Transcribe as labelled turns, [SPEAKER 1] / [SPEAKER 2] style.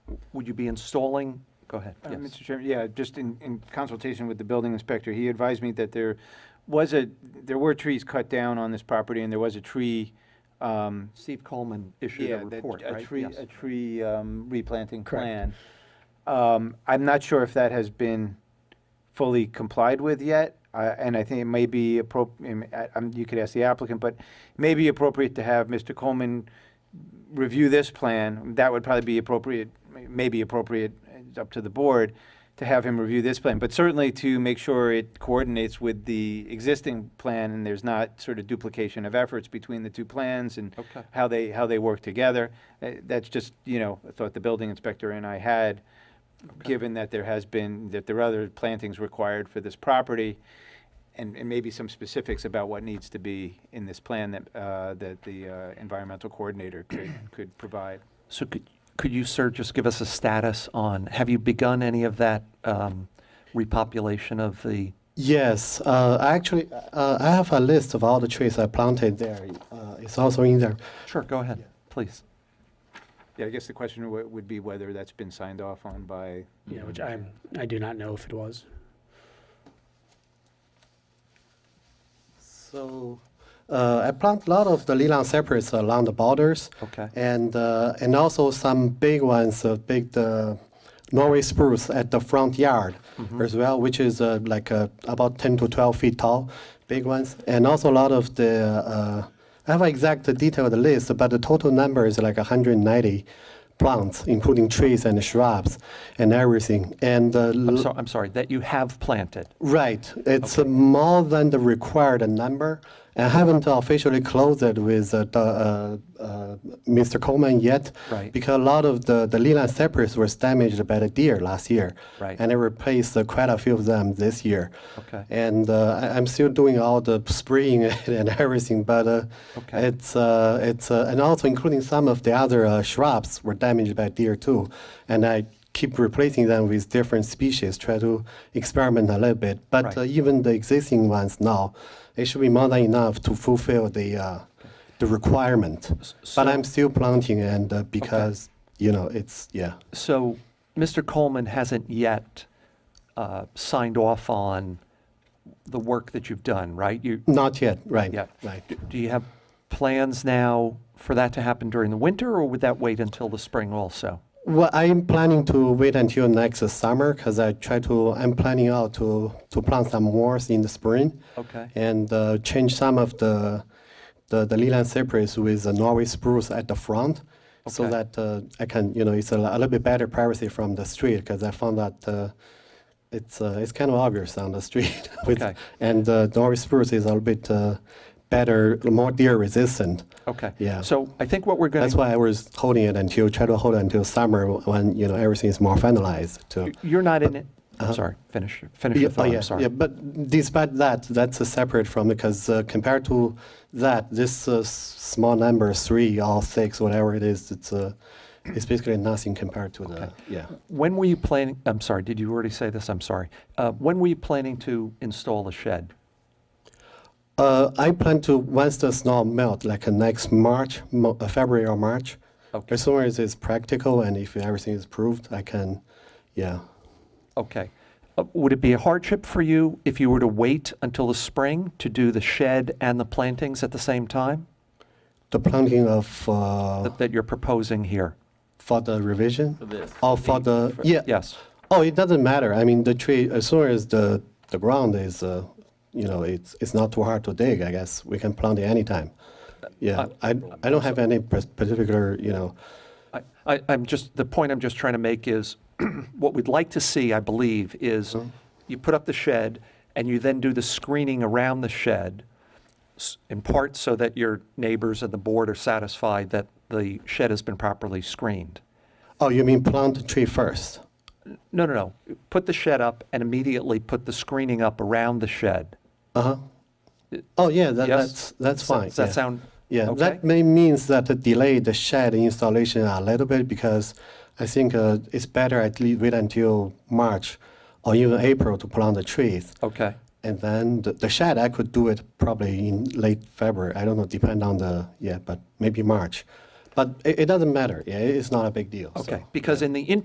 [SPEAKER 1] would you be installing, go ahead,
[SPEAKER 2] Uh,
[SPEAKER 1] yes.
[SPEAKER 2] Mr. Chairman, yeah, just in, in consultation with the building inspector, he advised me that there was a, there were trees cut down on this property, and there was a tree, um,
[SPEAKER 1] Steve Coleman issued
[SPEAKER 2] yeah,
[SPEAKER 1] a
[SPEAKER 2] that-
[SPEAKER 1] report,
[SPEAKER 2] a
[SPEAKER 1] right?
[SPEAKER 2] tree,
[SPEAKER 1] Yes.
[SPEAKER 2] a tree um, replanting
[SPEAKER 3] Correct.
[SPEAKER 2] plan. Um, I'm not sure if that has been fully complied with yet, uh, and I think it may be appropriate, you could ask the applicant, but it may be appropriate to have Mr. Coleman review this plan. That would probably be appropriate, may- may be appropriate, it's up to the board, to have him review this plan, but certainly to make sure it coordinates with the existing plan and there's not sort of duplication of efforts between the two plans and
[SPEAKER 1] Okay.
[SPEAKER 2] how they, how they work together. Uh, That's just, you know, a thought the building inspector and I had, given that there has been, that there are other plantings required for this property, and, and maybe some specifics about what needs to be in this plan that, uh, that the uh, environmental coordinator could, could provide.
[SPEAKER 1] So could, could you, sir, just give us a status on, have you begun any of that um, repopulation of the,
[SPEAKER 3] Yes, uh, I actually, uh, I have a list of all the trees I planted there. Uh, it's also in there.
[SPEAKER 1] sure, go ahead, please.
[SPEAKER 2] Yeah, I guess the question wo- would be whether that's been signed off on by,
[SPEAKER 4] Yeah, which I I do not know if it was.
[SPEAKER 3] So uh, I plant a lot of the Leland cypress along the borders,
[SPEAKER 1] Okay.
[SPEAKER 3] and uh, and also some big ones, uh, big the Norway spruce at the front yard
[SPEAKER 1] Mm-hmm.
[SPEAKER 3] as well, which is uh, like uh, about 10 to 12 feet tall, big ones, and also a lot of the. Uh, I have an exact detailed list, but the total number is like 190 plants, including trees and shrubs and everything. And uh,
[SPEAKER 1] I'm sorry, I'm sorry, that you have planted.
[SPEAKER 3] Right. It's uh, more than the required number. I haven't officially closed it with uh, the, uh, uh, Mr. Coleman yet.
[SPEAKER 1] Right.
[SPEAKER 3] Because a lot of the, the Leland cypress was damaged by the deer last year.
[SPEAKER 1] Right.
[SPEAKER 3] And I replaced uh, quite a few of them this year.
[SPEAKER 1] Okay.
[SPEAKER 3] And uh, I, I'm still doing all the spraying and everything, but uh,
[SPEAKER 1] Okay.
[SPEAKER 3] it's, uh, it's uh, and also including some of the other uh, shrubs were damaged by deer too. And I keep replacing them with different species, try to experiment a little bit. But
[SPEAKER 1] Right.
[SPEAKER 3] uh, even the existing ones now, it should be more than enough to fulfill the, uh, the requirement.
[SPEAKER 1] so-
[SPEAKER 3] but I'm still planting and uh, because, you know, it's, yeah.
[SPEAKER 1] So Mr. Coleman hasn't yet uh, signed off on the work that you've done, right? You,
[SPEAKER 3] Not yet, right.
[SPEAKER 1] yeah.
[SPEAKER 3] Right.
[SPEAKER 1] D- Do you have plans now for that to happen during the winter, or would that wait until the spring also?
[SPEAKER 3] Well, I'm planning to wait until next summer because I try to. I'm planning out to to plant some more in the spring.
[SPEAKER 1] Okay.
[SPEAKER 3] And uh, change some of the the, the Leland cypress with the Norway spruce at the front, so
[SPEAKER 1] Okay.
[SPEAKER 3] that uh, I can you know it's a, li- a little bit better privacy from the street because I found that. Uh, it's uh, it's kind of obvious on the street, with,
[SPEAKER 1] Okay.
[SPEAKER 3] and uh, Norway spruce is a little bit uh, better, more deer resistant.
[SPEAKER 1] Okay.
[SPEAKER 3] Yeah.
[SPEAKER 1] So I think what we're going
[SPEAKER 3] That's
[SPEAKER 1] to,
[SPEAKER 3] why I was holding it until, try to hold it until summer when, you know, everything is more finalized to.
[SPEAKER 1] you're not in it, I'm sorry, finish, finish your
[SPEAKER 3] Oh,
[SPEAKER 1] thought,
[SPEAKER 3] Uh-huh. yeah,
[SPEAKER 1] I'm sorry.
[SPEAKER 3] Yeah, but despite that, that's uh, separate from, because uh, compared to that, this uh, s- small number, three or six, whatever it is, it's, uh, it's basically nothing compared to the, yeah.
[SPEAKER 1] When were you planning, I'm sorry, did you already say this? I'm sorry. Uh, When were you planning to install the shed?
[SPEAKER 3] Uh, I plan to, once the snow melt, like uh, next March, mo- uh, February or March,
[SPEAKER 1] Okay.
[SPEAKER 3] as soon as it's practical and if everything is proved, I can, yeah.
[SPEAKER 1] Okay. Uh, Would it be a hardship for you if you were to wait until the spring to do the shed and the plantings at the same time
[SPEAKER 3] The planting of. uh,
[SPEAKER 1] that that you're proposing here?
[SPEAKER 3] For the revision? For
[SPEAKER 5] this.
[SPEAKER 3] Oh, for the, yeah.
[SPEAKER 1] Yes.
[SPEAKER 3] Oh, it doesn't matter. I mean, the tree, as soon as the, the ground is, uh, you know, it's, it's not too hard to dig, I guess. We can plant it anytime. Yeah, I, I don't have any pers- particular, you know,
[SPEAKER 1] I- I, I'm just, the point I'm just trying to make is, what we'd like to see, I believe, is
[SPEAKER 3] Uh-huh.
[SPEAKER 1] you put up the shed, and you then do the screening around the shed, s- in part so that your neighbors and the board are satisfied that the shed has been properly screened.
[SPEAKER 3] oh, you mean plant the tree first?
[SPEAKER 1] No, no, no, put the shed up and immediately put the screening up around the shed.
[SPEAKER 3] Oh, yeah, that,
[SPEAKER 1] Yes?
[SPEAKER 3] that's, that's
[SPEAKER 1] Does that-
[SPEAKER 3] fine.
[SPEAKER 1] Does that
[SPEAKER 3] yeah.
[SPEAKER 1] sound
[SPEAKER 3] Yeah,
[SPEAKER 1] okay?
[SPEAKER 3] that may means that it delay the shed installation a little bit because I think uh, it's better at least wait until March or even April to plant the trees.
[SPEAKER 1] Okay,
[SPEAKER 3] And then the, the shed, I could do it probably in late February. I don't know, depend on the, yeah, but maybe March. But it, it doesn't matter. Yeah, it's not a big deal.
[SPEAKER 1] okay,
[SPEAKER 3] so.
[SPEAKER 1] because in the interim,